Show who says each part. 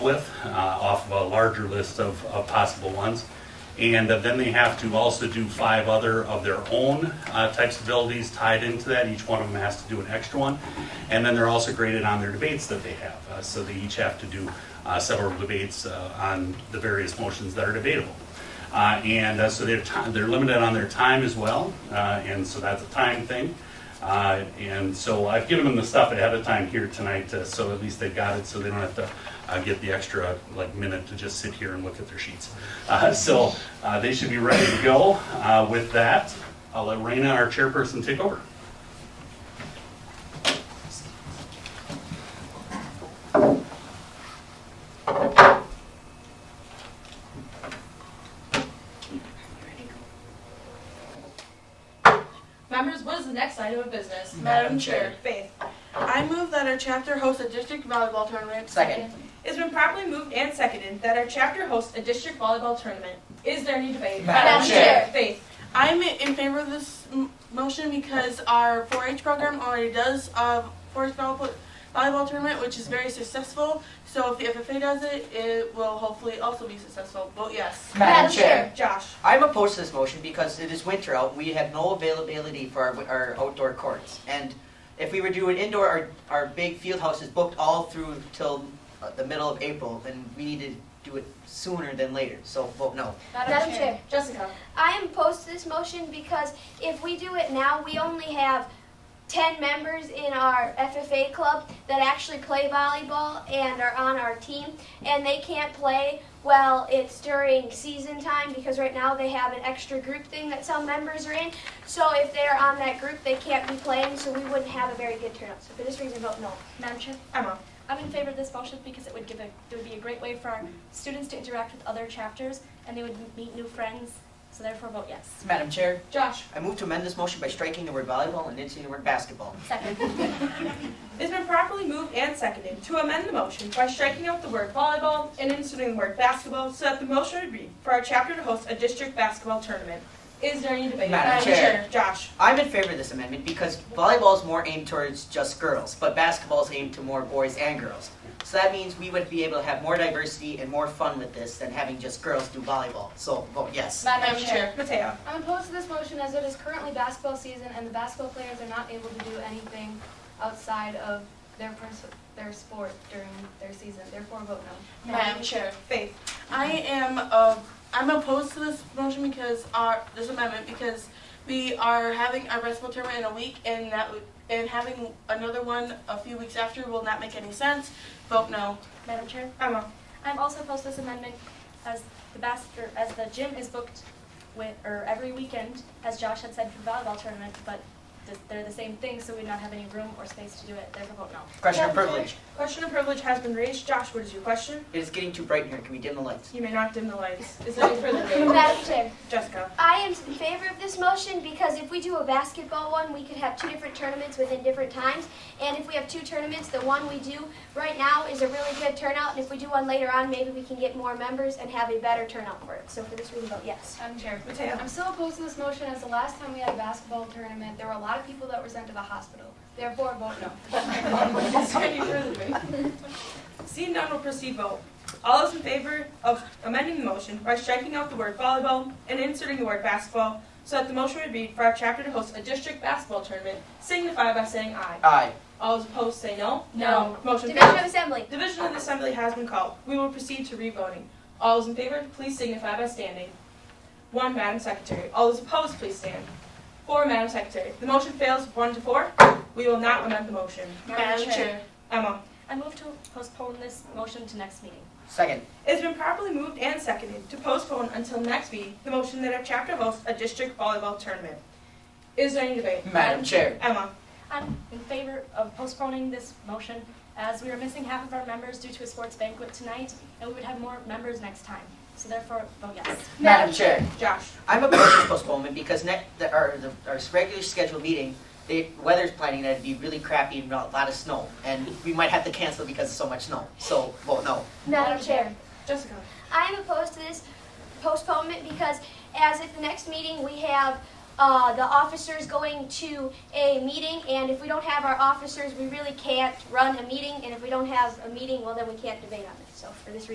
Speaker 1: with uh, off of a larger list of, of possible ones. And uh, then they have to also do five other of their own uh, types of abilities tied into that. Each one of them has to do an extra one. And then they're also graded on their debates that they have. Uh, So they each have to do uh, several debates uh, on the various motions that are debatable. Uh, And uh, so they're, ti- they're limited on their time as well, Uh, and so that's a time thing. Uh, And so I've given them the stuff ahead of time here tonight, uh, so at least they've got it, so they don't have to uh, get the extra, like, minute to just sit here and look at their sheets. Uh, So uh, they should be ready to go. Uh, With that, I'll let Raina, our chairperson, take over.
Speaker 2: Members, what is the next item of business?
Speaker 3: Madam Chair.
Speaker 4: Faith. I move that our chapter host a district volleyball tournament.
Speaker 3: Second.
Speaker 4: It's been properly moved and seconded that our chapter host a district volleyball tournament. Is there any debate?
Speaker 3: Madam
Speaker 2: Chair.
Speaker 4: Faith. I'm in favor of this m- motion because our 4-H program already does a 4-H volleyball volleyball tournament, which is very successful. So if the FFA does it, it will hopefully also be successful. Vote yes.
Speaker 3: Madam Chair.
Speaker 4: Josh.
Speaker 3: I'm opposed to this motion because it is winter out, we have no availability for our, our outdoor courts. And if we were doing indoor, our, our big field house is booked all through till uh, the middle of April, and we need to do it sooner than later, so vote no.
Speaker 5: Madam Chair.
Speaker 2: Jessica.
Speaker 5: I am opposed to this motion because if we do it now, we only have 10 members in our FFA club that actually play volleyball and are on our team, and they can't play well it's during season time because right now they have an extra group thing that some members are in. So if they're on that group, they can't be playing, so we wouldn't have a very good turnout. So for this reason, vote no.
Speaker 6: Madam Chair,
Speaker 4: Emma.
Speaker 6: I'm in favor of this motion because it would give a, it would be a great way for our students to interact with other chapters and they would meet new friends, so therefore vote yes.
Speaker 3: Madam Chair.
Speaker 4: Josh.
Speaker 3: I move to amend this motion by striking the word volleyball and inserting the word basketball.
Speaker 6: Second.
Speaker 4: It's been properly moved and seconded to amend the motion by striking out the word volleyball and inserting the word basketball so that the motion would read for our chapter to host a district basketball tournament. Is there any debate?
Speaker 3: Madam Chair.
Speaker 4: Josh.
Speaker 3: I'm in favor of this amendment because volleyball is more aimed towards just girls, but basketball is aimed to more boys and girls. So that means we would be able to have more diversity and more fun with this than having just girls do volleyball. So vote yes.
Speaker 4: Mateo.
Speaker 7: I'm opposed to this motion as it is currently basketball season and the basketball players are not able to do anything outside of their, pers- their sport during their season. Therefore, vote no.
Speaker 4: Madam Chair. Faith.
Speaker 8: I am uh, I'm opposed to this motion because our this amendment because we are having our basketball tournament in a week and that would- and having another one a few weeks after will not make any sense. Vote no.
Speaker 6: Madam Chair,
Speaker 4: Emma.
Speaker 6: I'm also opposed to this amendment as the bas- or as the gym is booked with, or every weekend, as Josh had said for volleyball tournament, but th- they're the same thing, so we'd not have any room or space to do it, therefore vote no.
Speaker 3: Question of
Speaker 4: Madam Chair.
Speaker 3: privilege.
Speaker 4: Question of privilege has been raised. Josh, what is your question?
Speaker 3: It is getting too bright in here. Can we dim the lights?
Speaker 4: You may not dim the lights. Is there any further debate?
Speaker 5: Madam Chair.
Speaker 4: Jessica.
Speaker 5: I am in favor of this motion because if we do a basketball one, we could have two different tournaments within different times. And if we have two tournaments, the one we do right now is a really good turnout. And if we do one later on, maybe we can get more members and have a better turnout for it. So for this, we vote yes.
Speaker 7: Madam Chair.
Speaker 4: Mateo.
Speaker 7: I'm still opposed to this motion as the last time we had a basketball tournament, there were a lot of people that were sent to the hospital. Therefore, vote no.
Speaker 4: Is there any further debate? Seeing none, will proceed vote. All those in favor of amending the motion by striking out the word volleyball and inserting the word basketball so that the motion would read for our chapter to host a district basketball tournament, signify by saying aye.
Speaker 3: Aye.
Speaker 4: All those opposed say no.
Speaker 6: No.
Speaker 4: Motion
Speaker 5: Division of
Speaker 4: fails.
Speaker 5: Assembly.
Speaker 4: Division of the Assembly has been called. We will proceed to revoting. All those in favor, please signify by standing. One, Madam Secretary. All those opposed, please stand. Four, Madam Secretary. The motion fails one to four. We will not amend the motion.
Speaker 6: Madam Chair.
Speaker 4: Emma.
Speaker 6: I move to postpone this motion to next meeting.
Speaker 3: Second.
Speaker 4: It's been properly moved and seconded to postpone until next meeting the motion that our chapter hosts a district volleyball tournament. Is there any debate?
Speaker 3: Madam Chair.
Speaker 4: Emma.
Speaker 6: I'm in favor of postponing this motion as we are missing half of our members due to a sports banquet tonight, and we would have more members next time. So therefore, vote yes.
Speaker 3: Madam Chair.
Speaker 4: Josh.
Speaker 3: I'm opposed to postponement because next, the, our, the, our regular scheduled meeting, the weather's planning that it'd be really crappy and a lot of snow. And we might have to cancel because of so much snow. So vote no.
Speaker 5: Madam Chair.
Speaker 4: Jessica.
Speaker 5: I am opposed to this postponement because as at the next meeting, we have uh, the officers going to a meeting, and if we don't have our officers, we really can't run a meeting, and if we don't have a meeting, well, then we can't debate on it. So for this reason.